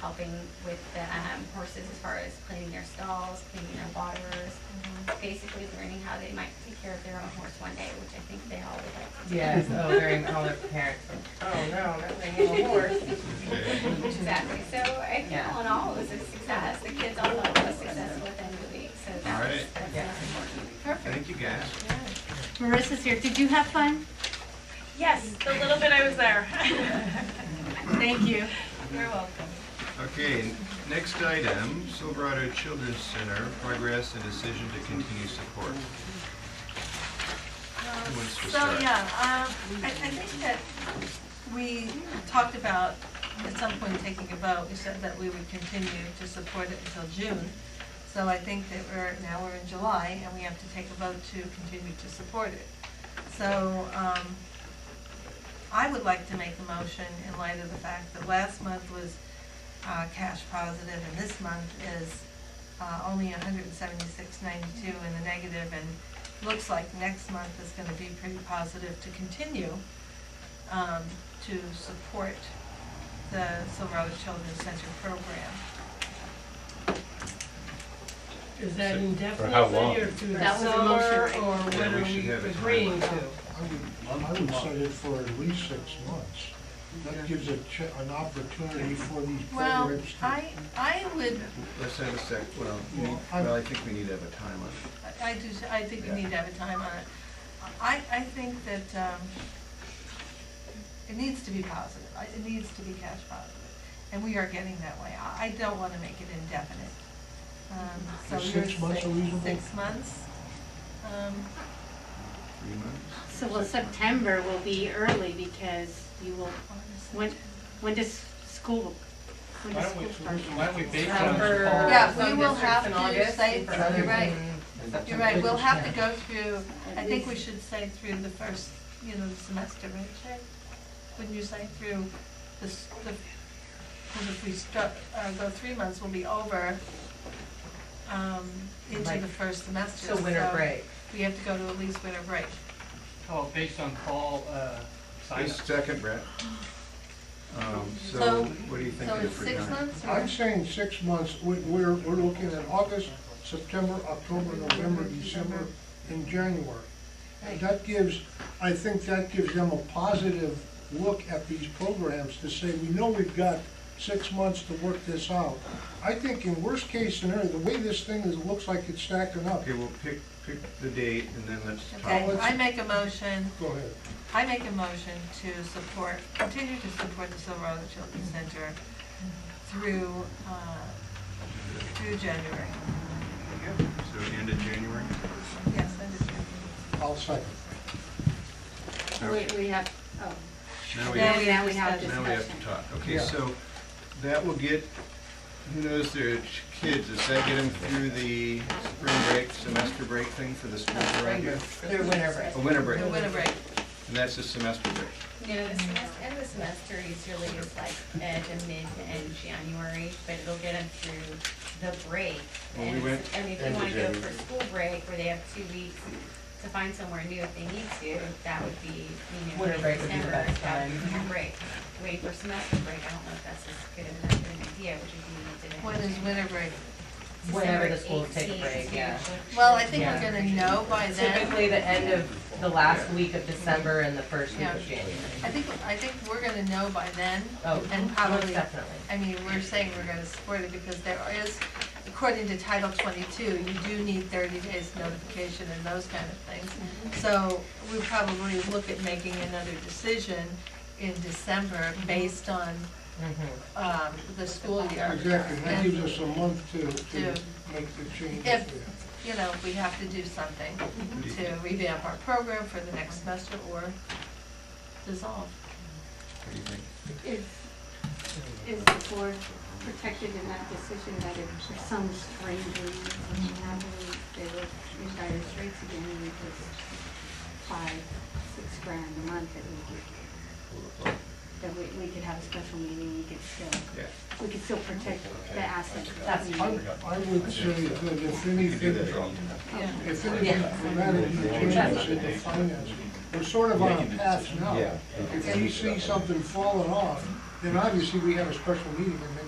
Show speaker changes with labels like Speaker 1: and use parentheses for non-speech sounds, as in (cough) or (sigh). Speaker 1: helping with the um, horses as far as cleaning their stalls, cleaning their waters, basically learning how they might take care of their own horse one day, which I think they all would like to do.
Speaker 2: Yes, oh, very, all their parents are, oh, no, that thing on a horse.
Speaker 1: Exactly, so I think
Speaker 2: Yeah.
Speaker 1: all in all, it was a success, the kids all thought it was successful at the end of the week, so
Speaker 3: All
Speaker 1: that's,
Speaker 3: right.
Speaker 1: that's
Speaker 2: Yeah.
Speaker 1: important.
Speaker 3: Thank you, guys.
Speaker 4: Marissa's here. Did you have fun?
Speaker 5: Yes, the little bit I was there. (laughs)
Speaker 4: Thank you.
Speaker 5: You're welcome.
Speaker 3: Okay, n- next item, Silverado Children's Center, progress and decision to continue support. Who wants to
Speaker 5: So,
Speaker 3: start?
Speaker 5: yeah, um, I, I think that we talked about at some point taking a vote, we said that we would continue to support it until June. So I think that we're, now we're in July and we have to take a vote to continue to support it. So, um, I would like to make a motion in light of the fact that last month was, uh, cash positive and this month is, uh, only hundred and seventy-six ninety-two in the negative and looks like next month is gonna be pretty positive to continue, um, to support the Silverado Children's Center program.
Speaker 6: Is that indefinitely
Speaker 7: how long?
Speaker 6: or through the
Speaker 1: That was a
Speaker 6: summer,
Speaker 1: motion.
Speaker 6: or
Speaker 3: Yeah,
Speaker 6: what
Speaker 3: we
Speaker 6: are
Speaker 3: should
Speaker 6: we
Speaker 3: have a time
Speaker 6: agreeing
Speaker 3: limit.
Speaker 6: to?
Speaker 8: I would, I would set it for at least six months. That gives a ch an opportunity for these
Speaker 5: Well,
Speaker 8: programs to.
Speaker 5: I, I would,
Speaker 3: Let's have a sec, well, we-
Speaker 8: Well, I'm-
Speaker 3: well, I think we need to have a time on it.
Speaker 5: I do, I think we need to have a time on it. I, I think that, um, it needs to be positive, I- it needs to be cash positive, and we are getting that way. I, I don't wanna make it indefinite. Um, so
Speaker 8: Is
Speaker 5: you're
Speaker 8: six months
Speaker 5: saying
Speaker 8: reasonable?
Speaker 5: Six months, um,
Speaker 3: Three months?
Speaker 4: So, well, September will be early because you will, when, when does school, when
Speaker 9: Why
Speaker 4: does
Speaker 9: don't we,
Speaker 4: school start?
Speaker 9: why don't we base it on
Speaker 2: September.
Speaker 9: fall?
Speaker 5: Yeah,
Speaker 2: Some
Speaker 5: we will
Speaker 2: districts
Speaker 5: have
Speaker 2: in
Speaker 5: to
Speaker 2: August,
Speaker 5: say-
Speaker 2: in September.
Speaker 5: you're right.
Speaker 2: And
Speaker 5: You're right, we'll have to go through, I think we should say through the first, you know, the semester, right, Shay? Wouldn't you say through the, s- the, because if we start, uh, go three months, we'll be over, um, into
Speaker 2: Like,
Speaker 5: the first semester.
Speaker 2: So winter
Speaker 6: uh,
Speaker 2: break.
Speaker 5: We have to go to at least winter break.
Speaker 9: Oh, based on fall, uh,
Speaker 3: Wait a
Speaker 9: sign-up.
Speaker 3: second, Brett. Um, So
Speaker 5: So-
Speaker 3: what do you think
Speaker 5: So
Speaker 3: of it
Speaker 5: it's
Speaker 3: for
Speaker 5: six
Speaker 3: time?
Speaker 5: months or?
Speaker 8: I'm saying six months, we, we're, we're looking at August, September, October, November, December, and January. And that gives, I think that gives them a positive look at these programs to say, we know we've got six months to work this out. I think in worst case scenario, the way this thing is, it looks like it's stacking up.
Speaker 3: Okay, we'll pick, pick the date and then let's talk.
Speaker 5: Okay, I make a motion,
Speaker 8: Go ahead.
Speaker 5: I make a motion to support, continue to support the Silverado Children's Center through, uh, through January.
Speaker 3: So end of January?
Speaker 5: Yes, that is true.
Speaker 8: I'll second.
Speaker 4: We, we have, oh,
Speaker 3: Now we
Speaker 5: Yeah,
Speaker 3: have,
Speaker 4: now now we have
Speaker 5: we
Speaker 3: now we have
Speaker 4: discussion.
Speaker 3: to talk. Okay,
Speaker 8: Yeah.
Speaker 3: so that will get, who knows their ch- kids, does that get them through the spring break, semester break thing for the school around here?
Speaker 2: Through winter break.
Speaker 3: A winter break,
Speaker 5: The winter break.
Speaker 3: and that's the semester break.
Speaker 1: No, the semester, end of the semester is really is like uh, the mid to end January, but it'll get them through the break.
Speaker 3: Well, we
Speaker 1: And
Speaker 3: went
Speaker 1: I mean, if
Speaker 3: end
Speaker 1: they
Speaker 3: of
Speaker 1: wanna go
Speaker 3: January.
Speaker 1: for school break, where they have two weeks to find somewhere new if they need to, that would be, you know.
Speaker 2: Winter break would be the
Speaker 1: December,
Speaker 2: best
Speaker 1: that would be
Speaker 2: time.
Speaker 1: a break. Wait for semester break, I don't know if that's as good enough of an idea, which would be mid to end.
Speaker 5: When is winter break?
Speaker 2: Whenever
Speaker 1: December
Speaker 2: the schools take a
Speaker 1: 18th
Speaker 2: break,
Speaker 1: to-
Speaker 2: yeah.
Speaker 5: Well, I think
Speaker 2: Yeah.
Speaker 5: we're gonna know by then.
Speaker 2: Typically, the end of the last week of December and the first week
Speaker 5: Yeah.
Speaker 2: of January.
Speaker 5: I think, I think we're gonna know by then.
Speaker 2: Oh,
Speaker 5: And
Speaker 2: most
Speaker 5: probably,
Speaker 2: definitely.
Speaker 5: I mean, we're saying we're gonna support it because there is, according to Title twenty-two, you do need thirty days notification and those kind of things. So we probably look at making another decision in December based on,
Speaker 2: Mhm.
Speaker 5: um, the school year.
Speaker 8: Exactly, that
Speaker 5: And,
Speaker 8: gives us a month to, to
Speaker 5: Yeah.
Speaker 8: make the changes.
Speaker 5: If-
Speaker 8: there.
Speaker 5: You know, we have to do something
Speaker 3: Mm-hmm.
Speaker 5: to revamp our program for the next semester or dissolve.
Speaker 3: What do you think?
Speaker 4: Is, is the board protected in that decision that if for some strange reason, happened, they would retire as rates again and it was five, six grand a month that we could, that we, we could have a special meeting, we could still,
Speaker 3: Yeah,
Speaker 4: we could still protect the assets that
Speaker 2: That's
Speaker 4: we
Speaker 8: I,
Speaker 4: need.
Speaker 8: I would say that if
Speaker 3: you could do
Speaker 8: anything,
Speaker 3: that at all.
Speaker 5: Yeah.
Speaker 8: if anything dramatically changes in the finance, we're sort of on a path now. If we see something falling off, then obviously we have a special meeting and make